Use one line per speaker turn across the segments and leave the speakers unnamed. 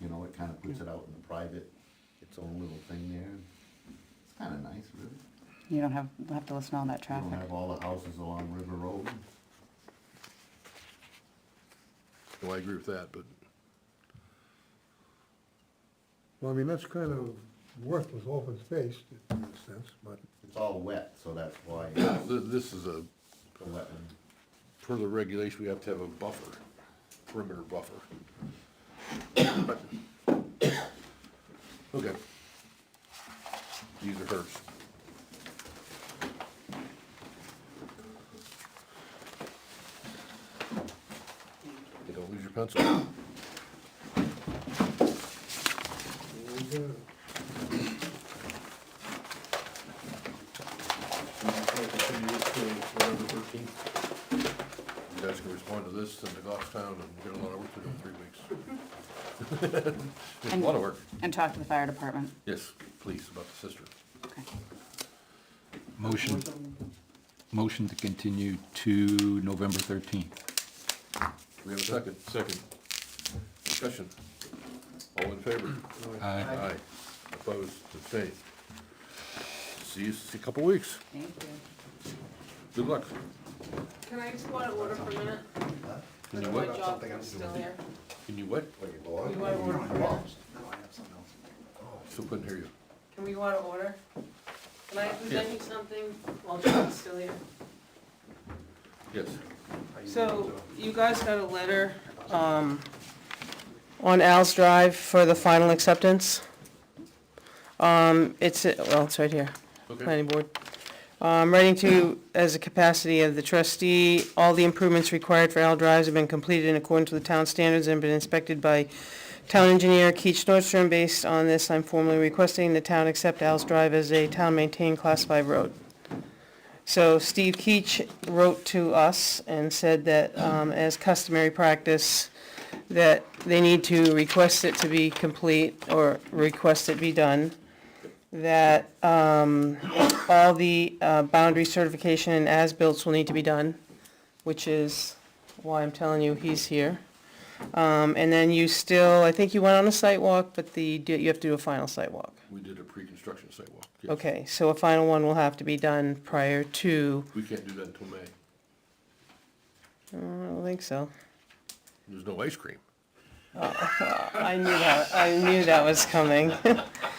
it kinda puts it out in the private, its own little thing there. It's kinda nice, really.
You don't have, have to listen to all that
You don't
traffic.
have all the houses along River Road.
Well, I agree with that, but
Well, I mean, that's kind of worthless open space in a sense, but
It's all wet, so that's why it's
th- this is a,
a wetland.
per the regulation, we have to have a buffer, perimeter buffer. Okay. These are hers. You don't lose your pencil.
uh,
You guys can respond to this, send to Goffstown, and get a lot of work to do in three weeks. Just A lot of work.
And talk to the fire department.
Yes, please, about the sister.
Okay.
Motion, motion to continue to November 13th.
We have a second? Second. Discussion. All in favor?
Aye.
Aye. Opposed, abstained. See you in a couple weeks.
Thank you.
Good luck.
Can I just go out of order for a minute?
Can you
My
what?
job thing's still there.
Can you what?
Can we go out of order for a minute?
Still couldn't hear you.
Can we go out of order? Can I present you something while John's still here?
Yes.
So you guys got a letter, um, on Al's Drive for the final acceptance. Um, it's, well, it's right here.
Okay.
planning board. Um, writing to, as a capacity of the trustee, all the improvements required for L drives have been completed in accordance with the town standards and been inspected by town engineer Keach Nordstrom. Based on this, I'm formally requesting the town accept Al's Drive as a town-maintained class five road. So Steve Keach wrote to us and said that, um, as customary practice, that they need to request it to be complete or request it be done that um, all the uh, boundary certification and as-built will need to be done, which is why I'm telling you he's here. Um, And then you still, I think you went on a site walk, but the, you have to do a final site walk.
We did a pre-construction sidewalk. Yes.
Okay, so a final one will have to be done prior to,
We can't do that until May.
I don't think so.
There's no ice cream.
I knew that, I knew that was coming,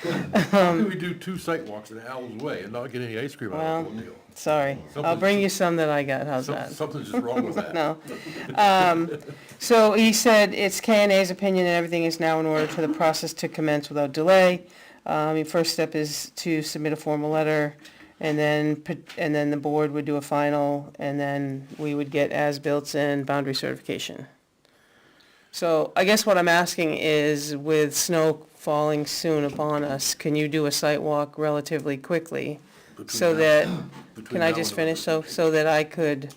Um,
How do we do two sidewalks in Al's Way and not get any ice cream out of the whole deal?
sorry. I'll bring you some that I got, how's
Some-
that?
Something's just wrong with that.
No. Um, So he said it's KNA's opinion and everything is now in order for the process to commence without delay. Um, Your first step is to submit a formal letter and then, put- and then the board would do a final and then we would get as-built and boundary certification. So I guess what I'm asking is with snow falling soon upon us, can you do a site walk relatively quickly?
Between
So
now-
that,
between
can
now
I
and
just
November.
finish so, so that I could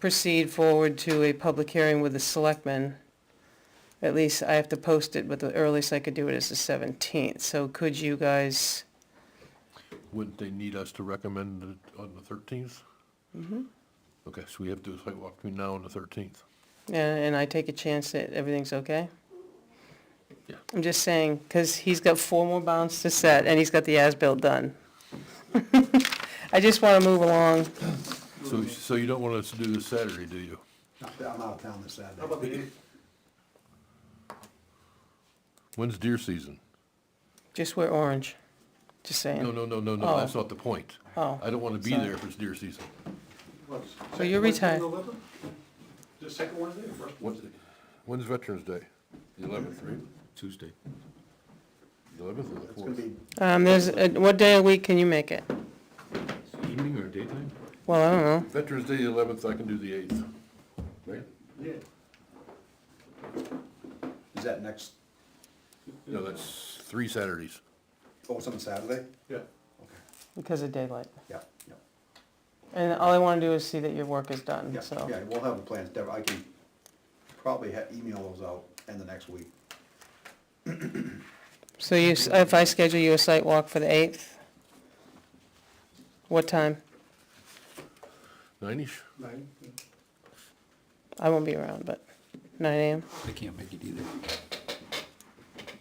proceed forward to a public hearing with the selectmen? At least I have to post it, but the earliest I could do it is the seventeenth, so could you guys,
Wouldn't they need us to recommend it on the thirteenth? Mm-hmm. Okay, so we have to do a site walk between now and the thirteenth.
and, and I take a chance that everything's okay?
Yeah.
I'm just saying, cause he's got four more bounds to set and he's got the as-built done. I just wanna move along,
So, so you don't want us to do this Saturday, do you?
I'm out of town this Saturday.
When's deer season?
just wear orange, just
No,
saying.
no, no, no, no, that's not the point.
Oh,
I don't wanna be
Sorry.
there if it's deer season.
so you're retired.
The second Wednesday or first?
When's, when's Veterans Day? The eleventh, right?
Tuesday.
The eleventh or the
It's gonna
fourth?
be,
Um, there's, uh, what day of the week can you make it?
Evening or daytime?
Well, I don't know.
Veterans Day, the eleventh, I can do the eighth. Right?
yeah. Is that next,
No, that's three Saturdays.
oh, it's on Saturday?
Yeah.
Okay,
Because of daylight.
yeah, yeah.
And all I wanna do is see that your work is done,
Yeah,
so.
yeah, we'll have a plan, Deb, I can probably ha- email those out in the next week.
So you, s- if I schedule you a site walk for the eighth? What time?
Nine-ish?
I won't be around, but nine AM?
I can't make it either.